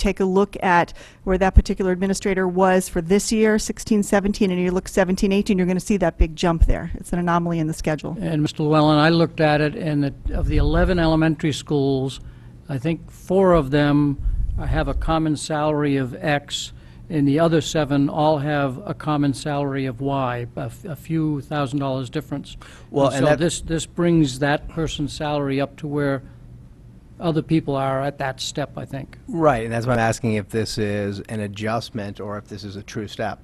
take a look at where that particular administrator was for this year, 16, 17, and you look 17, 18, you're going to see that big jump there. It's an anomaly in the schedule. And Mr. Llewellyn, I looked at it, and it- of the 11 elementary schools, I think four of them have a common salary of X, and the other seven all have a common salary of Y, a f- a few thousand dollars difference. Well, and So that- this, this brings that person's salary up to where other people are at that step, I think. Right, and that's why I'm asking if this is an adjustment or if this is a true step.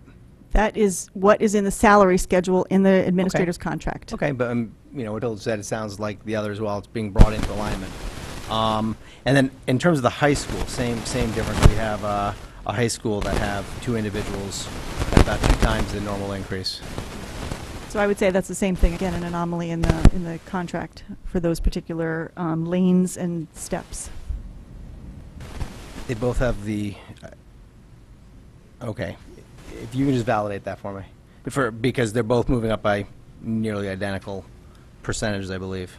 That is what is in the salary schedule in the administrator's contract. Okay, but, um, you know, what Hilda said, it sounds like the others, well, it's being brought into alignment. Um, And then, in terms of the high school, same, same difference. We have uh, a high school that have two individuals at about two times the normal increase. So I would say that's the same thing, again, an anomaly in the, in the contract for those particular um, lanes and steps. They both have the, uh, okay, if you can just validate that for me. For, because they're both moving up by nearly identical percentages, I believe,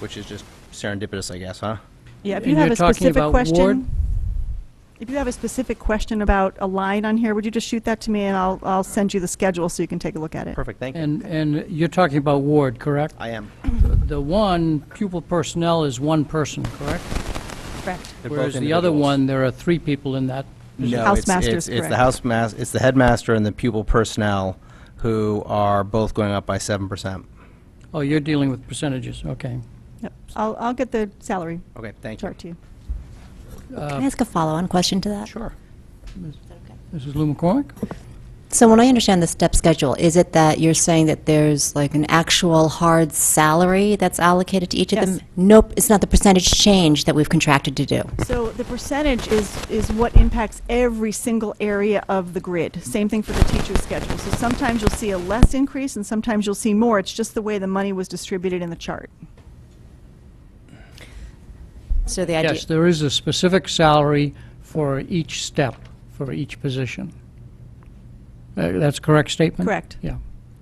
which is just serendipitous, I guess, huh? Yeah, if And you have you're a talking specific about ward? question. If you have a specific question about a line on here, would you just shoot that to me and I'll, I'll send you the schedule so you can take a look at it? Perfect, thank you. And, and you're talking about Ward, correct? I am. The one, pupil personnel is one person, correct? Perfect. They're both Whereas the other individuals. one, there are three people in that position. No, it's, Housemaster is it's, it's the correct. house mas- it's the headmaster and the pupil personnel who are both going up by seven percent. Oh, you're dealing with percentages, okay. Yep. I'll, I'll get the salary Okay, thank you. chart to you. Uh, Can I ask a follow-on question to that? Sure. Mrs. Lou McCormick? So when I understand the step schedule, is it that you're saying that there's like an actual hard salary that's allocated to each of them? Yes. Nope, it's not the percentage change that we've contracted to do. So the percentage is, is what impacts every single area of the grid. Same thing for the teacher's schedule. So sometimes you'll see a less increase and sometimes you'll see more. It's just the way the money was distributed in the chart. So the idea, Yes, there is a specific salary for each step, for each position. Uh, That's a correct statement? Correct. Yeah.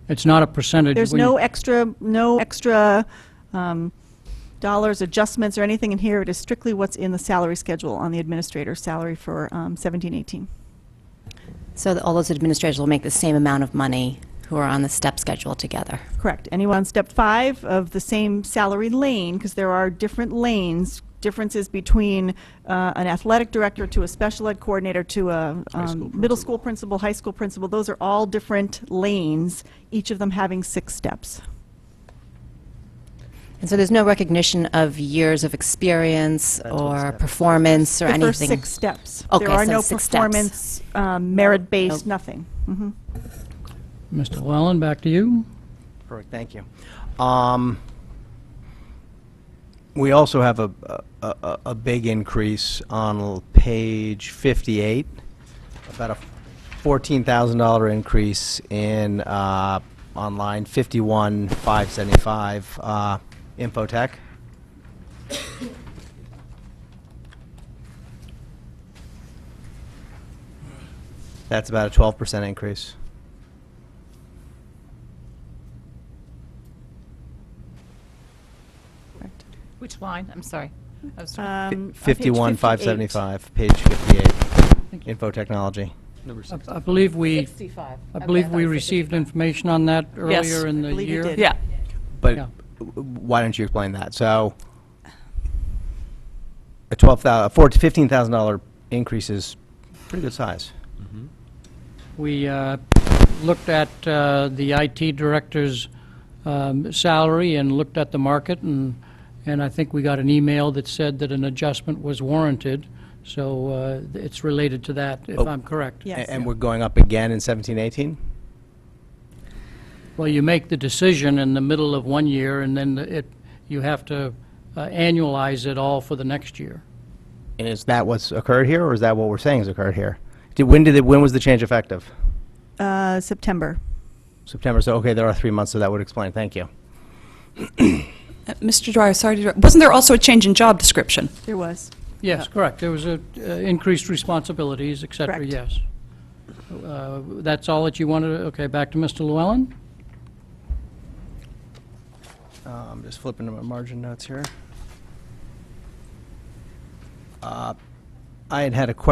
It's not a percentage. There's when you- no e- extra, no extra um, dollars, adjustments, or anything in here. It is strictly what's in the salary schedule on the administrator's salary for um, 17, 18. so that all those administrators will make the same amount of money who are on the step schedule together? Correct. Anyone on step five of the same salary lane, because there are different lanes, differences between uh, an athletic director to a special ed coordinator to a um, middle school principal, high school principal, those are all different lanes, each of them having six steps. And so there's no recognition of years of experience That's what or step- performance or The anything? first six steps. Okay, There are so no six steps. performance, um, merit-based, Nope. nothing. Mhm. Mr. Llewellyn, back to you. Perfect, thank you. Um, we also have a, a- a, a big increase on l- page fifty-eight, about a fourteen thousand dollar increase in, uh, on line fifty-one, five seventy-five, uh, infotech. That's about a twelve percent increase. Correct. Which line? I'm sorry. I was trying- Um, on page 51, 58. 575, page 58, info technology. I- I believe we, 65. I Okay, believe thought we you said received information on that Yes. earlier in I the believe you year. did. 55. Yeah, But Yeah. w- why don't you explain that? So a 12,000, a $15,000 increase is pretty good size. We uh, looked at uh, the IT director's um, salary and looked at the market, and, and I think we got an email that said that an adjustment was warranted, so uh, it's related to that, if Oh. I'm correct. Yeah. A- Yes. And we're going up again in 17, 18? Well, you make the decision in the middle of one year, and then it, you have to uh, annualize it all for the next year. And is that what's occurred here, or is that what we're saying has occurred here? Did, when did, it- when was the change effective? Uh, September. September, so, okay, there are three months, so that would explain, thank you. Uh, Mr. Dwyer, sorry to, interrupt. wasn't there also a change in job description? There was. Yes, correct. There was a, uh, increased responsibilities, et cetera, Correct. yes. Uh, That's all that you wanted, to- okay, back to Mr. Llewellyn? Uh, I'm just flipping to my margin notes here. Uh, I had had a question